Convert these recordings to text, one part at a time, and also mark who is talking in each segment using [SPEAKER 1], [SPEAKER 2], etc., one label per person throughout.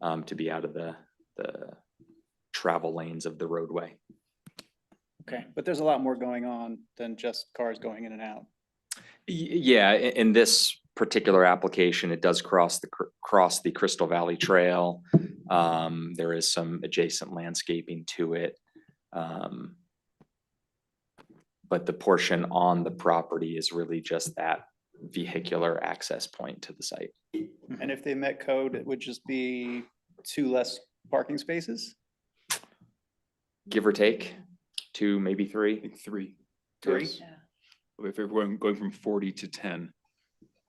[SPEAKER 1] um, to be out of the, the travel lanes of the roadway.
[SPEAKER 2] Okay, but there's a lot more going on than just cars going in and out.
[SPEAKER 1] Y- Yeah, i- in this particular application, it does cross the, cr- cross the Crystal Valley Trail. Um, there is some adjacent landscaping to it. Um, But the portion on the property is really just that vehicular access point to the site.
[SPEAKER 2] And if they met code, it would just be two less parking spaces?
[SPEAKER 1] Give or take, two, maybe three.
[SPEAKER 3] think three.
[SPEAKER 2] Three?
[SPEAKER 3] Yes. If we're going, going from forty to ten,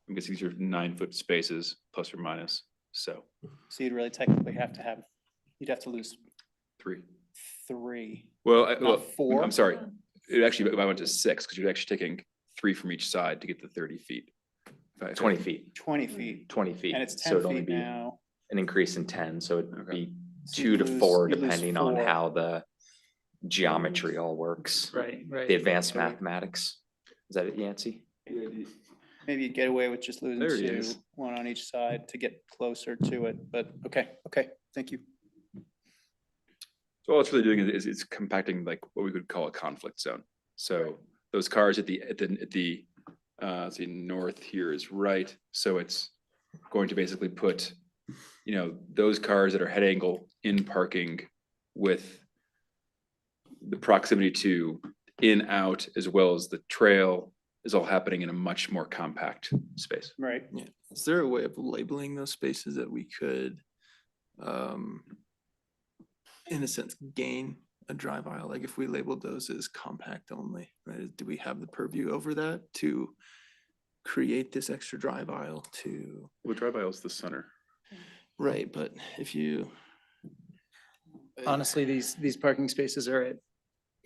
[SPEAKER 3] I guess these are nine foot spaces, plus or minus, so
[SPEAKER 2] So you'd really technically have to have, you'd have to lose
[SPEAKER 3] three.
[SPEAKER 2] three.
[SPEAKER 3] Well, I,
[SPEAKER 2] Not
[SPEAKER 3] well,
[SPEAKER 2] four?
[SPEAKER 3] I'm sorry, it actually, I went to six, because you're actually taking three from each side to get the thirty feet. If I- if I-
[SPEAKER 1] Twenty feet,
[SPEAKER 2] Twenty feet,
[SPEAKER 1] twenty feet.
[SPEAKER 2] and it's
[SPEAKER 1] So
[SPEAKER 2] ten
[SPEAKER 1] it'd only
[SPEAKER 2] feet
[SPEAKER 1] be
[SPEAKER 2] now.
[SPEAKER 1] An increase in ten, so it'd
[SPEAKER 3] Okay.
[SPEAKER 1] be
[SPEAKER 2] so
[SPEAKER 1] two
[SPEAKER 2] you'd
[SPEAKER 1] to
[SPEAKER 2] lose-
[SPEAKER 1] four,
[SPEAKER 2] you'd lose
[SPEAKER 1] depending on
[SPEAKER 2] four.
[SPEAKER 1] how the geometry all works.
[SPEAKER 4] Right, Mm-hmm. right.
[SPEAKER 1] The advanced
[SPEAKER 2] Okay.
[SPEAKER 1] mathematics. Is that it, Yancy?
[SPEAKER 2] Maybe you'd get away with just losing
[SPEAKER 3] There it
[SPEAKER 2] two,
[SPEAKER 3] is.
[SPEAKER 2] one on each side to get closer to it, but, okay, okay, thank you.
[SPEAKER 3] So all it's really doing is, it's compacting like what we would call a conflict zone. So those cars at the, at the, at the, uh, let's see, north here is right, so it's going to basically put, you know, those cars that are head angle in parking with the proximity to in, out, as well as the trail is all happening in a much more compact space.
[SPEAKER 2] Right,
[SPEAKER 4] Is there a way of labeling those spaces that we could, um, in a sense, gain a drive aisle? Like if we labeled those as compact only, right? Do we have the purview over that to create this extra drive aisle to,
[SPEAKER 3] Well, drive aisle's the center.
[SPEAKER 4] right, but if you. uh,
[SPEAKER 5] Honestly, these, these parking spaces are at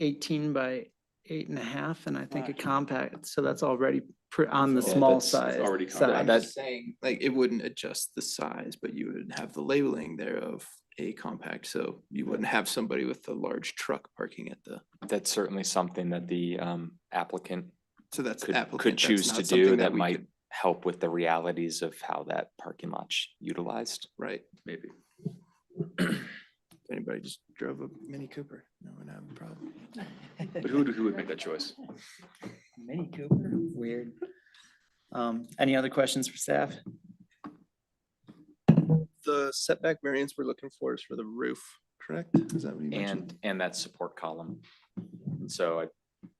[SPEAKER 5] eighteen by eight and a half, and I think a
[SPEAKER 2] Right.
[SPEAKER 5] compact, so that's already pr- on the
[SPEAKER 3] Yeah,
[SPEAKER 5] small
[SPEAKER 3] that's- that's
[SPEAKER 5] side.
[SPEAKER 3] already compact.
[SPEAKER 5] side.
[SPEAKER 4] I'm just saying, like, it wouldn't adjust the size, but you would have the labeling there of a compact, so you wouldn't have somebody with a large truck parking at the,
[SPEAKER 1] That's certainly something that the um, applicant
[SPEAKER 4] so that's.
[SPEAKER 1] could, could
[SPEAKER 4] applicant, that's
[SPEAKER 1] choose to
[SPEAKER 4] not something
[SPEAKER 1] do that
[SPEAKER 4] we
[SPEAKER 1] might
[SPEAKER 4] could-
[SPEAKER 1] help with the realities of how that parking lot's utilized.
[SPEAKER 4] Right,
[SPEAKER 3] Maybe.
[SPEAKER 4] if anybody just drove a Mini Cooper, no one have a problem.
[SPEAKER 3] But who, would- who would make that choice?
[SPEAKER 5] Mini Cooper, weird. Um, any other questions for staff?
[SPEAKER 4] The setback variance we're looking for is for the roof, correct? Is that what you mentioned?
[SPEAKER 1] And, and that support column. And so I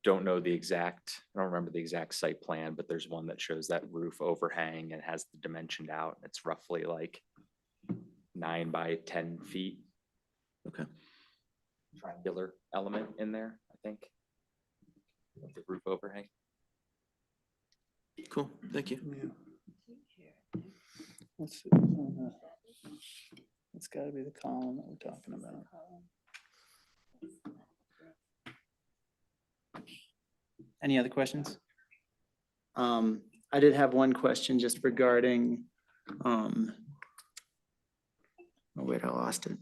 [SPEAKER 1] don't know the exact, I don't remember the exact site plan, but there's one that shows that roof overhang and has the dimensioned out. It's roughly like nine by ten feet.
[SPEAKER 4] Okay.
[SPEAKER 1] Triangular element in there, I think. of The roof overhang.
[SPEAKER 4] Cool, thank you.
[SPEAKER 2] yeah. Let's see, uh, It's gotta be the column that we're talking about.
[SPEAKER 5] Any other questions? Um, I did have one question just regarding, um, oh wait, I lost it.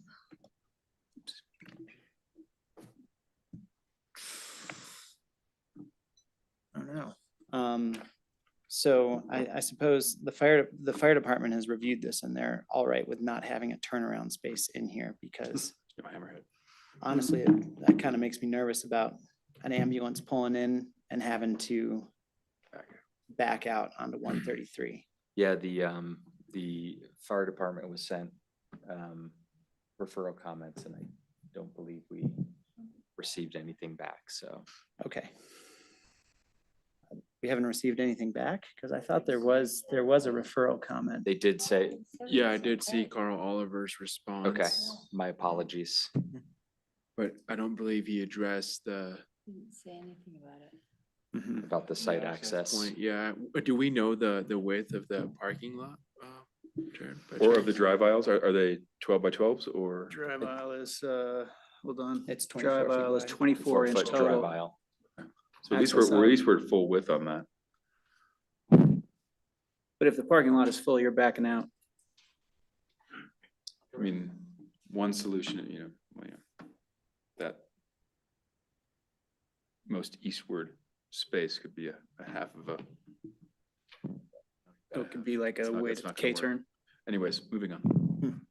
[SPEAKER 5] I don't know. Um, so I, I suppose the fire, the fire department has reviewed this and they're all right with not having a turnaround space in here because
[SPEAKER 3] Get My hammerhead.
[SPEAKER 5] honestly, it- that kind of makes me nervous about an ambulance pulling in and having to back out onto one thirty-three.
[SPEAKER 1] Yeah, the, um, the fire department was sent, um, referral comments and I don't believe we received anything back, so.
[SPEAKER 5] Okay. We haven't received anything back because I thought there was, there was a referral comment.
[SPEAKER 1] They did say,
[SPEAKER 6] Yeah, I did see Carl.
[SPEAKER 7] Carl Oliver's response.
[SPEAKER 1] okay, my apologies.
[SPEAKER 7] But I don't believe he addressed the.
[SPEAKER 6] Say anything about it.
[SPEAKER 4] Mhm.
[SPEAKER 1] About the site
[SPEAKER 7] the
[SPEAKER 1] access.
[SPEAKER 7] point. Yeah, Uh, do we know the, the width of the parking lot? uh, Jared, by
[SPEAKER 3] Or of the
[SPEAKER 7] chance?
[SPEAKER 3] drive aisles, are, are they twelve by twelves or?
[SPEAKER 4] Drive aisle is, uh, hold on.
[SPEAKER 5] It's twenty-four feet wide.
[SPEAKER 1] 4
[SPEAKER 4] twenty-four
[SPEAKER 1] foot drive aisle.
[SPEAKER 3] So at least we're,
[SPEAKER 4] access
[SPEAKER 3] we're- at
[SPEAKER 4] on-
[SPEAKER 3] least we're at full width on that.
[SPEAKER 4] But if the parking lot is full, you're backing out.
[SPEAKER 3] I mean, one solution, you know, well, yeah, that most eastward space could be a, a half of a.
[SPEAKER 4] It could be like
[SPEAKER 3] It's
[SPEAKER 4] a
[SPEAKER 3] not-
[SPEAKER 4] way
[SPEAKER 3] it's
[SPEAKER 4] to
[SPEAKER 3] not gonna work.
[SPEAKER 4] K-turn.
[SPEAKER 3] Anyways, moving on.